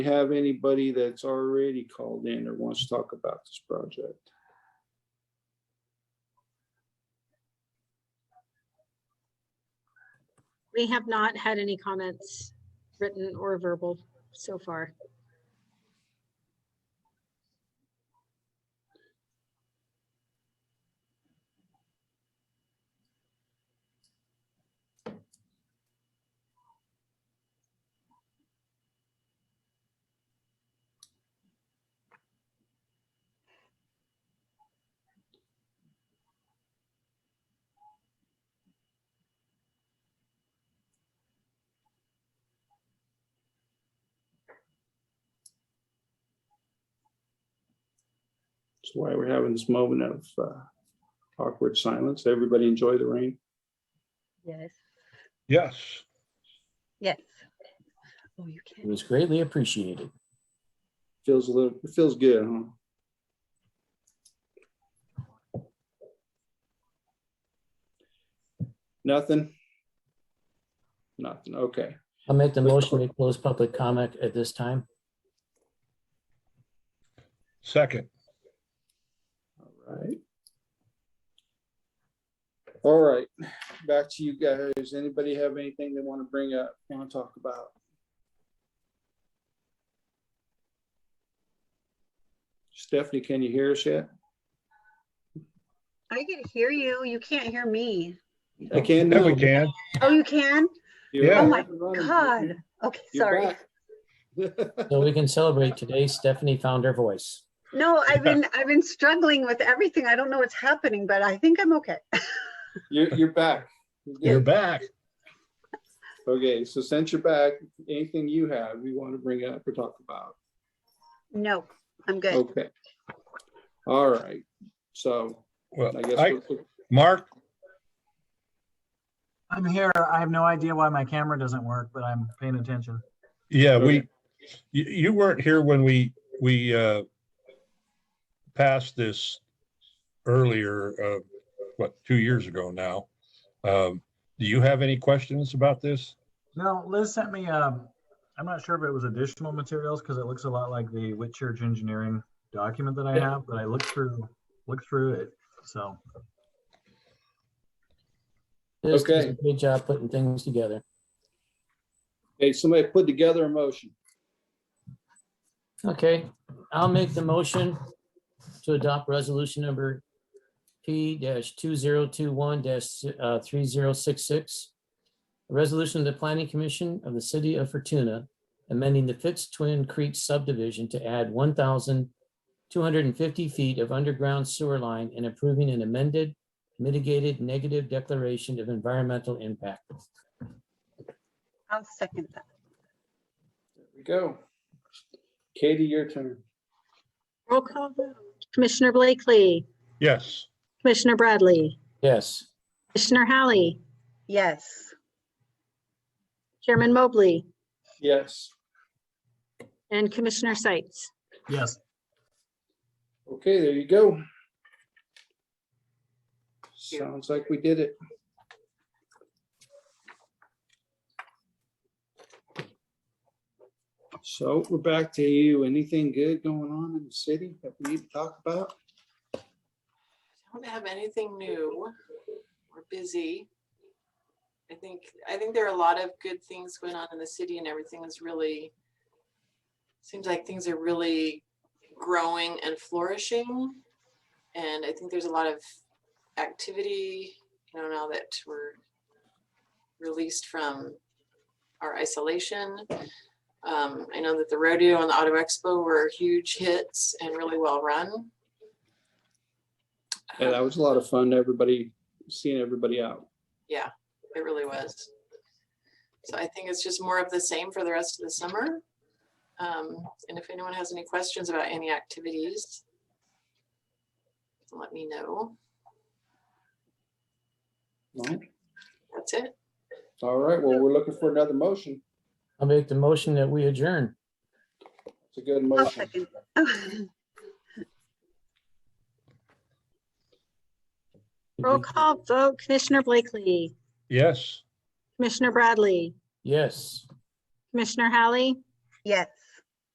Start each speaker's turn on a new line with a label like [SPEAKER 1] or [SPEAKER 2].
[SPEAKER 1] you have anybody that's already called in or wants to talk about this project?
[SPEAKER 2] We have not had any comments written or verbal so far.
[SPEAKER 1] That's why we're having this moment of uh, awkward silence. Everybody enjoy the rain.
[SPEAKER 3] Yes,
[SPEAKER 4] Yes,
[SPEAKER 3] yes. Oh, you can't.
[SPEAKER 5] It was greatly appreciated.
[SPEAKER 1] Feels a little, it feels good, huh? Nothing? Nothing, okay.
[SPEAKER 5] I'll make the motion to close public comment at this time.
[SPEAKER 4] second,
[SPEAKER 1] All right. All right, back to you guys. Anybody have anything they want to bring up, want to talk about? Stephanie, can you hear us yet?
[SPEAKER 6] I can hear you. You can't hear me.
[SPEAKER 1] I can
[SPEAKER 4] there
[SPEAKER 1] now.
[SPEAKER 4] we can.
[SPEAKER 6] Oh, you can?
[SPEAKER 1] You're
[SPEAKER 4] Oh
[SPEAKER 6] my
[SPEAKER 1] up and running.
[SPEAKER 6] God. Okay,
[SPEAKER 1] You're
[SPEAKER 6] sorry.
[SPEAKER 1] back.
[SPEAKER 5] So we can celebrate today. Stephanie found her voice.
[SPEAKER 6] No, I've been, I've been struggling with everything. I don't know what's happening, but I think I'm okay.
[SPEAKER 1] You're, you're back.
[SPEAKER 4] You're back.
[SPEAKER 1] Okay, so since you're back, anything you have you want to bring up or talk about?
[SPEAKER 6] No, I'm good.
[SPEAKER 1] Okay. All right, so
[SPEAKER 4] Well,
[SPEAKER 1] I guess.
[SPEAKER 4] I,
[SPEAKER 1] we'll-
[SPEAKER 4] Mark,
[SPEAKER 7] I'm here. I have no idea why my camera doesn't work, but I'm paying attention.
[SPEAKER 4] yeah, we,
[SPEAKER 1] Okay.
[SPEAKER 4] you, you weren't here when we, we, uh, passed this earlier, uh, what, two years ago now. Um, do you have any questions about this?
[SPEAKER 7] No, Liz sent me, um, I'm not sure if it was additional materials because it looks a lot like the Whitchurch Engineering document that I
[SPEAKER 1] Yeah.
[SPEAKER 7] have, but I looked through, looked through it. So,
[SPEAKER 5] Liz does
[SPEAKER 1] Okay.
[SPEAKER 5] a Good job putting things together.
[SPEAKER 1] Okay, somebody put together a motion.
[SPEAKER 5] Okay, I'll make the motion to adopt resolution number P two zero two one uh, three zero six six. A resolution of the Planning Commission of the City of Fortuna amending the Fitz Twin Creek subdivision to add one thousand two hundred and fifty feet of underground sewer line and approving an amended mitigated negative declaration of environmental impact.
[SPEAKER 6] I'll second that.
[SPEAKER 1] There we go. Katie, your turn.
[SPEAKER 2] Roll call vote. Commissioner Blakely,
[SPEAKER 4] Yes,
[SPEAKER 2] Commissioner Bradley,
[SPEAKER 5] Yes,
[SPEAKER 2] Commissioner Hallie,
[SPEAKER 6] Yes.
[SPEAKER 2] Chairman Mobley,
[SPEAKER 1] Yes.
[SPEAKER 2] and Commissioner Seitz.
[SPEAKER 7] yes,
[SPEAKER 1] Okay, there you go. Sounds like we did it. So we're back to you. Anything good going on in the city that we need to talk about?
[SPEAKER 8] Don't have anything new. We're busy. I think, I think there are a lot of good things going on in the city and everything is really, seems like things are really growing and flourishing. And I think there's a lot of activity, you know, now that we're released from our isolation. Um, I know that the rodeo and the auto expo were huge hits and really well run. Um,
[SPEAKER 1] Yeah, that was a lot of fun. Everybody, seeing everybody out.
[SPEAKER 8] It really was. So I think it's just more of the same for the rest of the summer. Um, and if anyone has any questions about any activities, let me know. That's it.
[SPEAKER 1] All right, well, we're looking for another motion.
[SPEAKER 5] I'll make the motion that we adjourn.
[SPEAKER 1] It's a good
[SPEAKER 6] I'll
[SPEAKER 1] motion.
[SPEAKER 6] second.
[SPEAKER 2] Roll call vote. Commissioner Blakely,
[SPEAKER 4] yes.
[SPEAKER 2] Commissioner Bradley,
[SPEAKER 5] Yes.
[SPEAKER 2] Commissioner Hallie,
[SPEAKER 6] Yes.